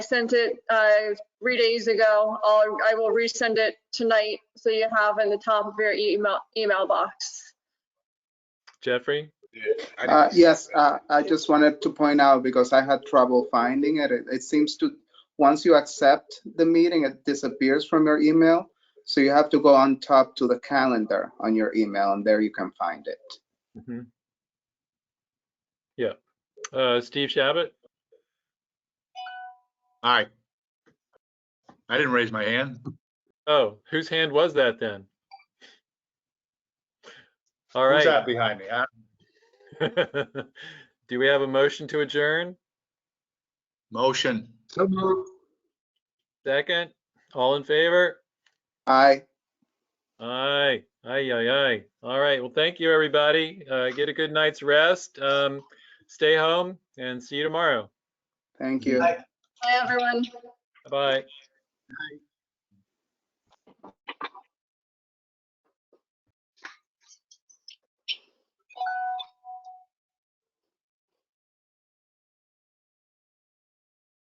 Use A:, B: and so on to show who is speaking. A: sent it uh, three days ago. I'll, I will resend it tonight so you have in the top of your email email box.
B: Jeffrey?
C: I
D: Uh,
C: didn't-
D: Yes, uh, I just wanted to point out because I had trouble finding it. It it seems to, once you accept the meeting, it disappears from your email. So you have to go on top to the calendar on your email and there you can find it.
B: Mhm. Yeah. Uh, Steve Shabbat?
C: Aye. I didn't raise my hand.
B: Oh, whose hand was that then? All right.
C: Who's that behind me? Uh,
B: Do we have a motion to adjourn?
C: Motion.
B: Second? All in favor?
D: I,
B: Aye, aye, aye, aye. All right, well, thank you, everybody. Uh, get a good night's rest. Um, stay home and see you tomorrow.
D: thank you.
C: Aye.
A: Hi, everyone.
B: Bye.